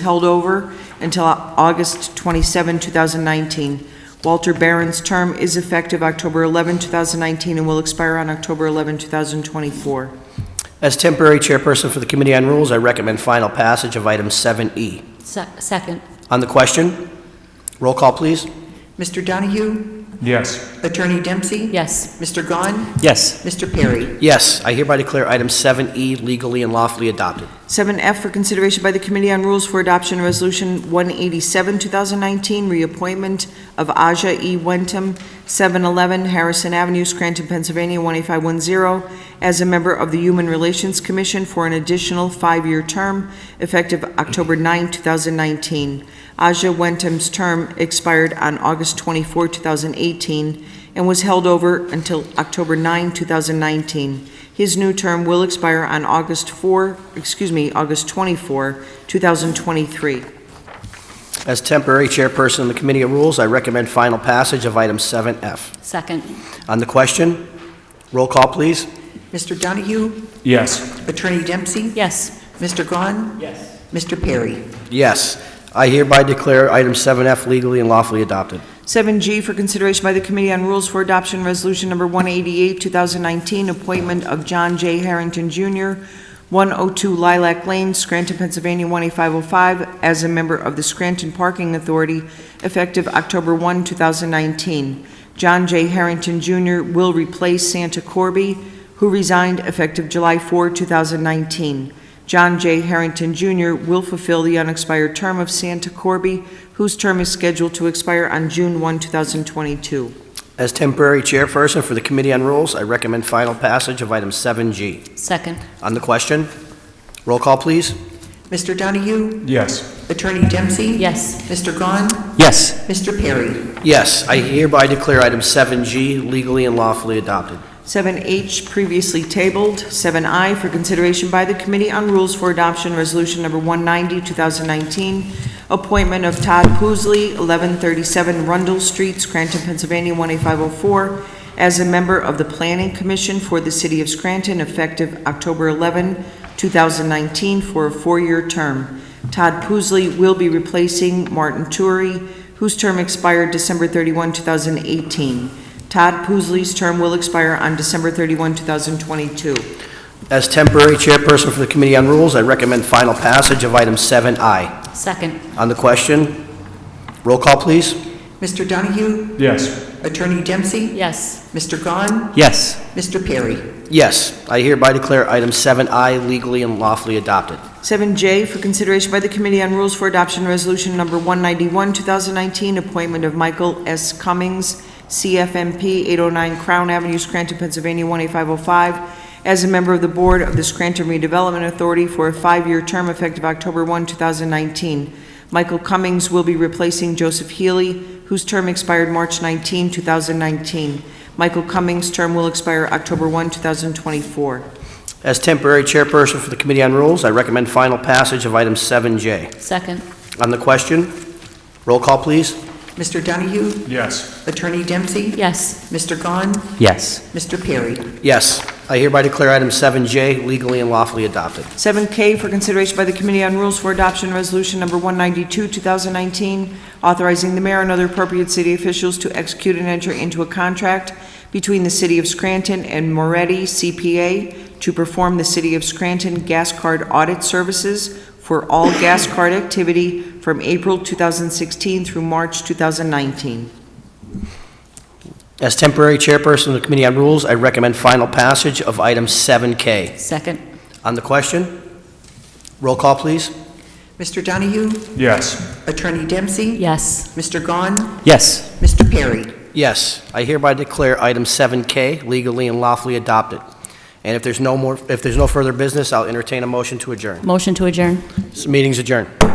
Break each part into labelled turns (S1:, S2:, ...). S1: held over until August 27, 2019. Walter Barron's term is effective October 11, 2019, and will expire on October 11, 2024.
S2: As temporary chairperson for the Committee on Rules, I recommend final passage of item 7E.
S3: Se- Second,
S2: On the question, roll call, please.
S4: Mr. Donahue?
S5: Yes.
S4: Attorney Dempsey?
S3: yes.
S4: Mr. Gahn?
S2: Yes.
S4: Mr. Perry?
S2: Yes, I hereby declare item 7E legally and lawfully adopted.
S1: 7F for consideration by the Committee on Rules for Adoption Resolution 187, 2019, reappointment of Aja E. Wentham, 711 Harrison Avenue, Scranton, Pennsylvania, 18510, as a member of the Human Relations Commission for an additional five-year term effective October 9, 2019. Aja Wentham's term expired on August 24, 2018, and was held over until October 9, 2019. His new term will expire on August 4, excuse me, August 24, 2023.
S2: As temporary chairperson of the Committee on Rules, I recommend final passage of item 7F.
S3: Second,
S2: On the question, roll call, please.
S4: Mr. Donahue?
S5: Yes.
S4: Attorney Dempsey?
S3: yes.
S4: Mr. Gahn? Yes. Mr. Perry?
S2: Yes, I hereby declare item 7F legally and lawfully adopted.
S1: 7G for consideration by the Committee on Rules for Adoption Resolution Number 188, 2019, appointment of John J. Harrington Jr., 102 Lilac Lane, Scranton, Pennsylvania, 18505, as a member of the Scranton Parking Authority effective October 1, 2019. John J. Harrington Jr. will replace Santa Corby, who resigned effective July 4, 2019. John J. Harrington Jr. will fulfill the unexpired term of Santa Corby, whose term is scheduled to expire on June 1, 2022.
S2: As temporary chairperson for the Committee on Rules, I recommend final passage of item 7G.
S3: Second,
S2: On the question, roll call, please.
S4: Mr. Donahue?
S5: Yes.
S4: Attorney Dempsey?
S3: yes.
S4: Mr. Gahn?
S2: Yes.
S4: Mr. Perry?
S2: Yes, I hereby declare item 7G legally and lawfully adopted.
S1: 7H previously tabled, 7I for consideration by the Committee on Rules for Adoption Resolution Number 190, 2019, appointment of Todd Poosley, 1137 Rundle Street, Scranton, Pennsylvania, 18504, as a member of the Planning Commission for the City of Scranton effective October 11, 2019, for a four-year term. Todd Poosley will be replacing Martin Turi, whose term expired December 31, 2018. Todd Poosley's term will expire on December 31, 2022.
S2: As temporary chairperson for the Committee on Rules, I recommend final passage of item 7I.
S3: Second,
S2: On the question, roll call, please.
S4: Mr. Donahue?
S5: Yes.
S4: Attorney Dempsey?
S3: yes.
S4: Mr. Gahn?
S2: Yes.
S4: Mr. Perry?
S2: Yes, I hereby declare item 7I legally and lawfully adopted.
S1: 7J for consideration by the Committee on Rules for Adoption Resolution Number 191, 2019, appointment of Michael S. Cummings, CFMP, 809 Crown Avenue, Scranton, Pennsylvania, 18505, as a member of the Board of the Scranton Redevelopment Authority for a five-year term effective October 1, 2019. Michael Cummings will be replacing Joseph Healy, whose term expired March 19, 2019. Michael Cummings' term will expire October 1, 2024.
S2: As temporary chairperson for the Committee on Rules, I recommend final passage of item 7J.
S3: Second,
S2: On the question, roll call, please.
S4: Mr. Donahue?
S5: Yes.
S4: Attorney Dempsey?
S3: yes.
S4: Mr. Gahn?
S2: Yes.
S4: Mr. Perry?
S2: Yes, I hereby declare item 7J legally and lawfully adopted.
S1: 7K for consideration by the Committee on Rules for Adoption Resolution Number 192, 2019, authorizing the mayor and other appropriate city officials to execute and enter into a contract between the City of Scranton and Moretti CPA to perform the City of Scranton gas card audit services for all gas card activity from April 2016 through March 2019.
S2: As temporary chairperson of the Committee on Rules, I recommend final passage of item 7K.
S3: Second,
S2: On the question, roll call, please.
S4: Mr. Donahue?
S5: Yes.
S4: Attorney Dempsey?
S3: yes.
S4: Mr. Gahn?
S2: Yes.
S4: Mr. Perry?
S2: Yes, I hereby declare item 7K legally and lawfully adopted. And if there's no more, if there's no further business, I'll entertain a motion to adjourn.
S3: Motion to adjourn.
S2: This meeting's adjourned.
S6: That's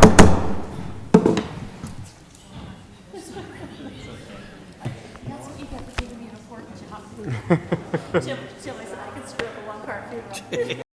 S6: what you get for giving me an important job. Jill, Jill, I said I could screw up a one-car funeral.